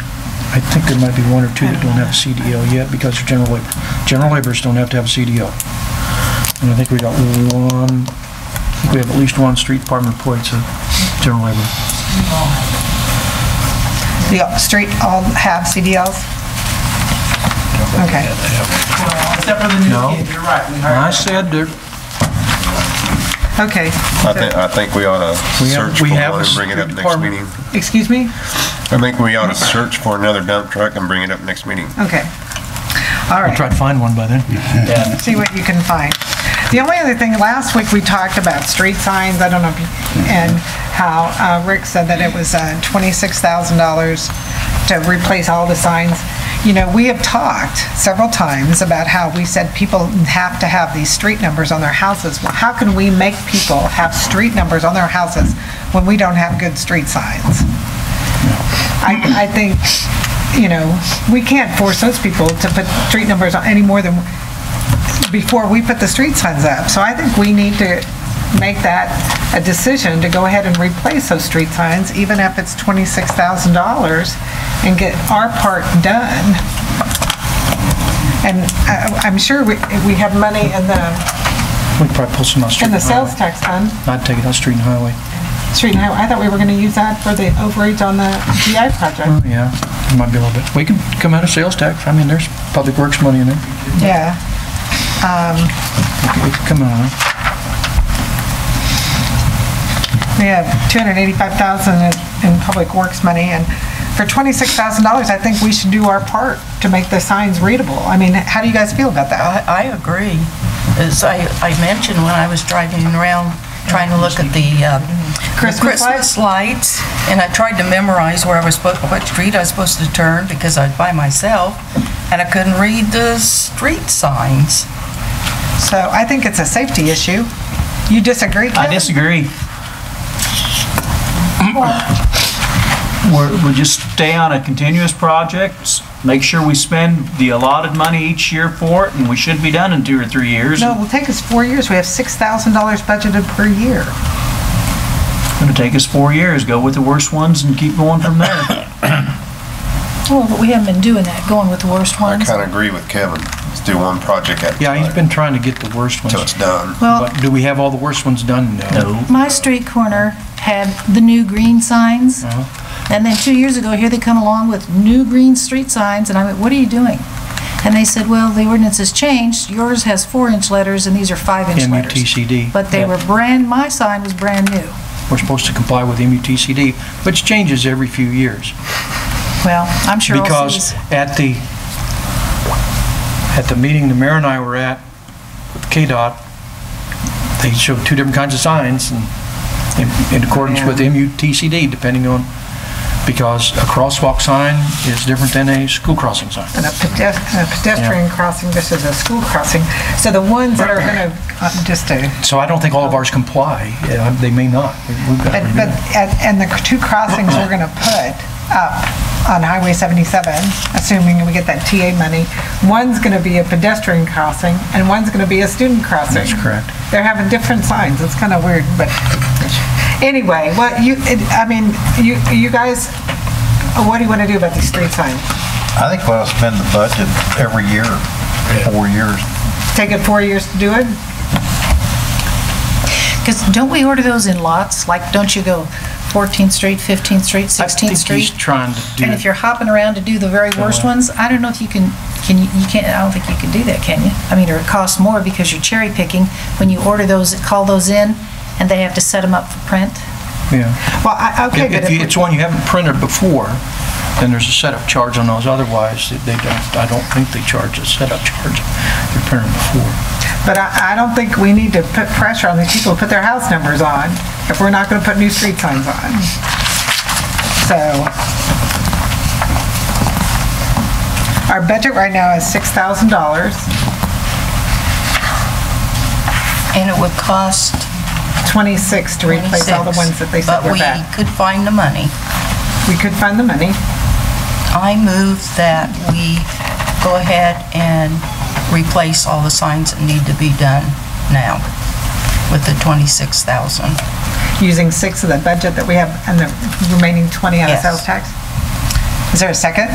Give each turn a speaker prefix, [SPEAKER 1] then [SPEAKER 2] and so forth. [SPEAKER 1] I think there might be one or two that don't have a CDL yet because they're general labor. General laborers don't have to have a CDL. And I think we got one, I think we have at least one street department employee that's a general laborer.
[SPEAKER 2] The street all have CDLs? Okay.
[SPEAKER 3] Except for the new
[SPEAKER 1] No.
[SPEAKER 3] kid, you're right, we
[SPEAKER 1] And I
[SPEAKER 3] hired.
[SPEAKER 1] said there,
[SPEAKER 2] Okay.
[SPEAKER 4] I think, I think we ought to
[SPEAKER 1] We have-
[SPEAKER 4] search
[SPEAKER 1] we
[SPEAKER 4] for
[SPEAKER 1] have a
[SPEAKER 4] one and bring it up next
[SPEAKER 1] department-
[SPEAKER 4] meeting.
[SPEAKER 2] Excuse me?
[SPEAKER 4] I think we ought to search for another dump truck and bring it up next meeting.
[SPEAKER 2] Okay. All
[SPEAKER 1] I'll
[SPEAKER 2] right.
[SPEAKER 1] try to find one by then.
[SPEAKER 2] see what you can find. The only other thing, last week we talked about street signs, I don't know, if you and how uh, Rick said that it was uh, $26,000 to replace all the signs. You know, we have talked several times about how we said people have to have these street numbers on their houses. Well, How can we make people have street numbers on their houses when we don't have good street signs? I, I think, you know, we can't force those people to put street numbers on any more than, before we put the street signs up. So I think we need to make that a decision to go ahead and replace those street signs, even if it's $26,000, and get our part done. And I- I'm sure we we have money in the,
[SPEAKER 1] We could probably pull some out of street
[SPEAKER 2] in
[SPEAKER 1] and
[SPEAKER 2] the sales
[SPEAKER 1] highway.
[SPEAKER 2] tax fund,
[SPEAKER 1] I'd take it out of street and highway.
[SPEAKER 2] street, and highway. I thought we were going to use that for the overage on the GI project.
[SPEAKER 1] Yeah, it might be a little bit. We can come out of sales tax. I mean, there's public works money in there.
[SPEAKER 2] Yeah.
[SPEAKER 1] We could come out. of it.
[SPEAKER 2] We have 285,000 in- in public works money, and for $26,000, I think we should do our part to make the signs readable. I mean, how do you guys feel about that?
[SPEAKER 5] I, I agree. As I, I mentioned when I was driving around, trying to look at the um, the
[SPEAKER 2] Christmas lights?
[SPEAKER 5] Christmas lights, and I tried to memorize where I was supposed, what street I was supposed to turn, because I was by myself, and I couldn't read the street signs.
[SPEAKER 2] So I think it's a safety issue. You disagree,
[SPEAKER 6] I
[SPEAKER 2] Kevin?
[SPEAKER 6] disagree. We're, we just stay on a continuous project, s- make sure we spend the allotted money each year for it, and we should be done in two or three years.
[SPEAKER 2] No,
[SPEAKER 6] It's
[SPEAKER 2] it'll take us four years. We have $6,000 budgeted per year.
[SPEAKER 6] gonna take us four years, go with the worst ones and keep going from there.
[SPEAKER 7] Well, Oh, but we haven't been doing that, going with the worst
[SPEAKER 4] I
[SPEAKER 7] ones.
[SPEAKER 4] kind of agree with Kevin. Let's do one project at a
[SPEAKER 1] Yeah, he's
[SPEAKER 4] time
[SPEAKER 1] been trying to get the worst
[SPEAKER 4] till
[SPEAKER 1] ones.
[SPEAKER 4] it's done.
[SPEAKER 7] Well,
[SPEAKER 1] But do we have all the worst ones done?
[SPEAKER 6] No.
[SPEAKER 7] my street corner had the new green signs,
[SPEAKER 1] Uh-huh.
[SPEAKER 7] and then two years ago, here they come along with new green street signs, and I went, what are you doing? And they said, well, the ordinance has changed, yours has four-inch letters and these are five-inch letters.
[SPEAKER 1] MUTCD.
[SPEAKER 7] But they
[SPEAKER 6] Yep.
[SPEAKER 7] were brand, my sign was brand new.
[SPEAKER 1] We're supposed to comply with MUTCD, which changes every few years.
[SPEAKER 7] Well, I'm sure all
[SPEAKER 1] Because
[SPEAKER 7] cities.
[SPEAKER 1] at the, at the meeting the mayor and I were at, with KDOT, they showed two different kinds of signs and in- in accordance with MUTCD, depending on, because a crosswalk sign is different than a school crossing sign.
[SPEAKER 2] And a pedest- a pedestrian crossing, this is a school crossing. So the ones that are going to, just to
[SPEAKER 1] So I don't think all of ours comply. Yeah, They may not. We've got to
[SPEAKER 2] But,
[SPEAKER 1] review
[SPEAKER 2] but,
[SPEAKER 1] it.
[SPEAKER 2] and and the two crossings we're gonna put up on Highway 77, assuming we get that TA money, one's gonna be a pedestrian crossing, and one's gonna be a student crossing.
[SPEAKER 1] That's correct.
[SPEAKER 2] They're having different signs, it's kinda weird, but, anyway, well, you, it- I mean, you, you guys, what do you wanna do about these street signs?
[SPEAKER 8] I think we'll spend the budget every year, four years.
[SPEAKER 2] Take it four years to do it?
[SPEAKER 7] Because don't we order those in lots? Like, don't you go 14th Street, 15th Street, 16th
[SPEAKER 1] I think
[SPEAKER 7] Street?
[SPEAKER 1] he's trying to do
[SPEAKER 7] And if you're hopping around to do the very worst ones, I don't know if you can, can you, you can't, I don't think you can do that, can you? I mean, or it costs more because you're cherry picking. When you order those, call those in, and they have to set them up for print.
[SPEAKER 1] Yeah.
[SPEAKER 2] Well, I, okay,
[SPEAKER 1] If
[SPEAKER 2] but
[SPEAKER 1] if you-
[SPEAKER 2] if,
[SPEAKER 1] it's one you haven't printed before, then there's a setup charge on those. Otherwise, they don't, I don't think they charge a setup charge if you're printing before.
[SPEAKER 2] but I, I don't think we need to put pressure on these people to put their house numbers on if we're not gonna put new street signs on. So, Our budget right now is six thousand dollars,
[SPEAKER 5] And it would cost
[SPEAKER 2] twenty-six to replace all the ones that they
[SPEAKER 5] 26,
[SPEAKER 2] said
[SPEAKER 5] but
[SPEAKER 2] were
[SPEAKER 5] we
[SPEAKER 2] bad.
[SPEAKER 5] could find the money.
[SPEAKER 2] We could find the money.
[SPEAKER 5] I move that we go ahead and replace all the signs that need to be done now with the 26,000.
[SPEAKER 2] using six of the budget that we have and the remaining 20 out of
[SPEAKER 5] Yes.
[SPEAKER 2] sales tax. Is there a second?